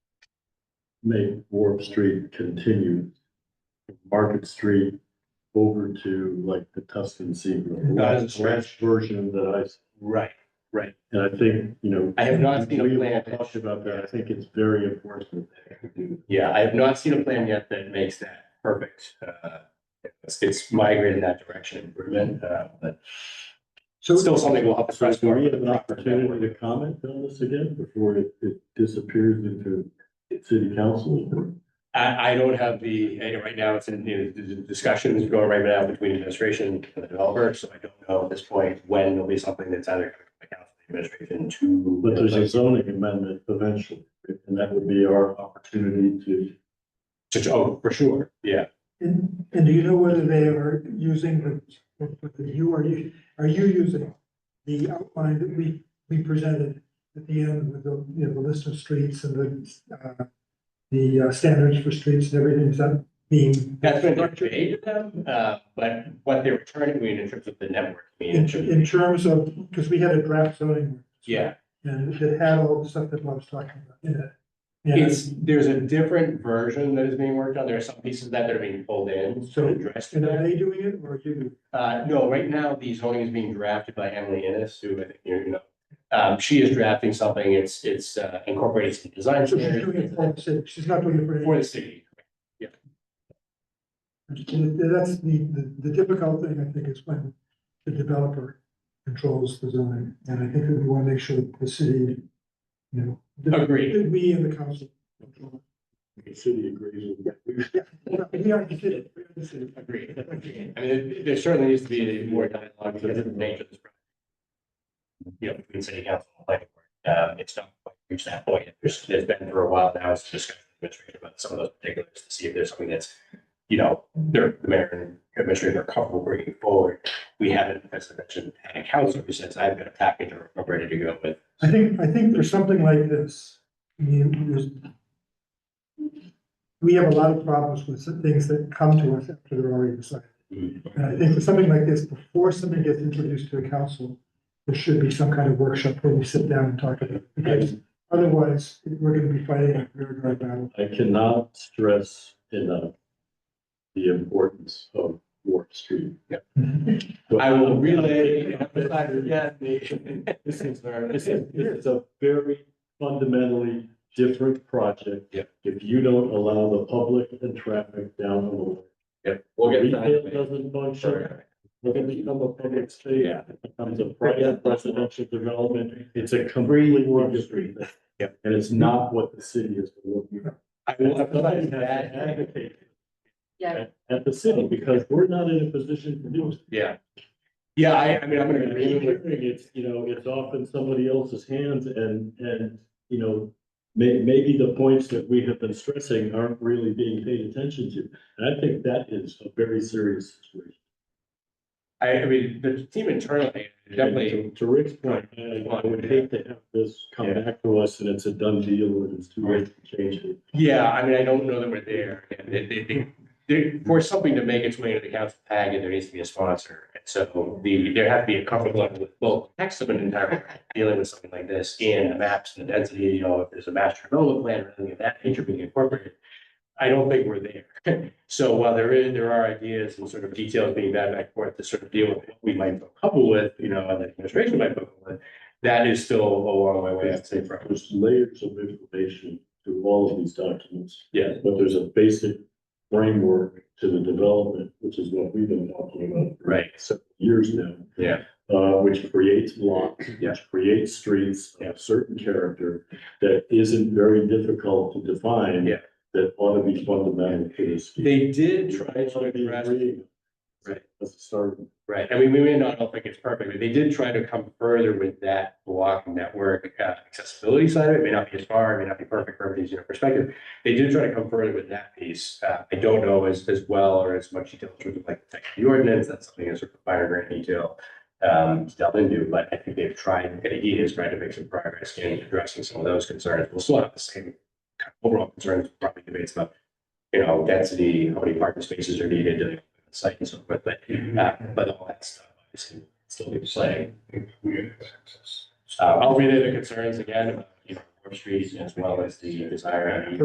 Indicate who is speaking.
Speaker 1: make Warp Street continue Market Street over to like the Tuscan Seagull, the
Speaker 2: Not as a
Speaker 1: last,
Speaker 2: stretch.
Speaker 1: last version that I, s-
Speaker 2: Right.
Speaker 1: and I think, you know.
Speaker 2: I have not seen a
Speaker 1: we've
Speaker 2: plan
Speaker 1: all
Speaker 2: that-
Speaker 1: Talked about that, I think it's very important. that they do
Speaker 2: Yeah, I have not seen a plan yet that makes that perfect. Uh, it's, it's migrated in that direction improvement, uh, but
Speaker 3: So-
Speaker 2: still something we'll have to.
Speaker 1: So
Speaker 2: press
Speaker 1: do
Speaker 2: more.
Speaker 1: we have an opportunity to comment on this again before it, it disappears into city council?
Speaker 2: I, I don't have the, I know right now it's in, you know, the the discussions going right now between administration and the developer, so I don't know at this point when it'll be something that's either coming from the council, the administration to.
Speaker 1: But there's a zoning amendment eventually, and that would be our opportunity to.
Speaker 2: To- oh, for sure, yeah.
Speaker 3: And, and do you know whether they are using the, what the- you are, you, are you using the outline that we, we presented at the end with the, you know, the list of streets and the, uh, the uh, standards for streets and everything, is that being?
Speaker 2: That's been conveyed to them, uh, but what they're returning me in terms of the network. I mean,
Speaker 3: In,
Speaker 2: in terms of-
Speaker 3: in terms of, because we had a draft zoning.
Speaker 2: Yeah,
Speaker 3: And it had all the stuff that Bob's talking about in it. And
Speaker 2: it's, there's a different version that is being worked on. There are some pieces of that that are being pulled in, so
Speaker 3: So-
Speaker 2: addressed to
Speaker 3: and
Speaker 2: that.
Speaker 3: are they doing it or are you? doing it?
Speaker 2: Uh, no, right now, the zoning is being drafted by Emily Innes, who I think you know. Um, she is drafting something, it's, it's uh, incorporated some design
Speaker 3: So she's doing it for
Speaker 2: standards
Speaker 3: the city, she's not doing it for any.
Speaker 2: for the city.
Speaker 3: That's the, the, the difficult thing, I think, is when the developer controls the zoning, and I think that we wanna make sure that the city, you know. that-
Speaker 2: Agreed.
Speaker 3: that We and the council. control
Speaker 1: The city agrees with that.
Speaker 3: it. We are the city, we are the city.
Speaker 2: Agreed. I mean, there- there certainly needs to be more dialogue because of the nature of this. project. You know, between city council and planning board, um, it's not quite reached that point. There's, there's been for a while now, it's just administrative about some of those particulars to see if there's something that's, you know, they're, the mayor and administrator are comfortable bringing forward. We haven't, as I mentioned, had a council who says, I've got a package or I'm ready to go with.
Speaker 3: I think, I think for something like this, I mean, there's. We have a lot of problems with some things that come to us after they're already decided. And I think for something like this, before something gets introduced to the council, there should be some kind of workshop where we sit down and talk about it. Because otherwise, we're gonna be fighting a very dry battle.
Speaker 1: I cannot stress enough the importance of Warp Street.
Speaker 2: I will relay, and emphasize again, the-
Speaker 1: This is, this is, this is a very fundamentally different project.
Speaker 2: Yep.
Speaker 1: If you don't allow the public and traffic down the road.
Speaker 2: Yep, we'll get
Speaker 1: Retail
Speaker 2: that.
Speaker 1: doesn't function, We're gonna become a public space,
Speaker 2: Yeah.
Speaker 1: it becomes a private residential development, it's a completely industry.
Speaker 2: Yep.
Speaker 1: And it's not what the city is looking for.
Speaker 2: I will
Speaker 1: Somebody
Speaker 2: emphasize
Speaker 1: has to
Speaker 2: that.
Speaker 1: advocate
Speaker 4: Yeah,
Speaker 1: at- At the city, because we're not in a position to do it.
Speaker 2: Yeah. Yeah, I, I mean, I'm gonna agree with you.
Speaker 1: It's, you know, it's off in somebody else's hands and, and, you know, may, maybe the points that we have been stressing aren't really being paid attention to. And I think that is a very serious situation.
Speaker 2: I, I mean, the team internally, definitely,
Speaker 1: And To to Rick's point, I I would hate to have this come back to us and it's a done deal and it's too late to change it.
Speaker 2: yeah, I mean, I don't know that we're there. And they, they, they, there- for something to make its way into the council packet, there needs to be a sponsor. And so the, there have to be a comfort level with, well, text of an entire, dealing with something like this and the maps and the density, you know, if there's a master development plan or anything of that nature being incorporated. I don't think we're there. So while there is, there are ideas and sort of details being back and forth to sort of deal with what we might feel comfortable with, you know, and the administration might feel comfortable with. That is still a long way away, I'd say, from.
Speaker 1: There's layers of information through all of these documents.
Speaker 2: Yeah.
Speaker 1: But there's a basic framework to the development, which is what we've been talking about. for
Speaker 2: Right.
Speaker 1: several Years now.
Speaker 2: Yeah.
Speaker 1: Uh, which creates blocks,
Speaker 2: Yeah.
Speaker 1: which creates streets
Speaker 2: Yeah.
Speaker 1: of certain character that isn't very difficult to define.
Speaker 2: Yeah.
Speaker 1: That ought to be fundamental to this.
Speaker 2: They did try to address, Right.
Speaker 1: That's a start.
Speaker 2: right, I mean, we may not all think it's perfect, but they did try to come further with that block network uh, accessibility side of it, It may not be as far, it may not be perfect from everybody's, you know, perspective. They did try to come further with that piece, uh, I don't know as, as well or as much detail in terms of like the text of the ordinance, that's something that's sort of finer grain detail. Um, to delve into, but I think they've tried, and he has tried to make some progress in addressing some of those concerns, we'll still have the same kind of overall concerns, probably debates about you know, density, how many parking spaces are needed to the site and so forth, but, uh, but all that stuff, obviously, still be playing. Uh, I'll relay the concerns again, about, you know, Warp Street as well as the desire.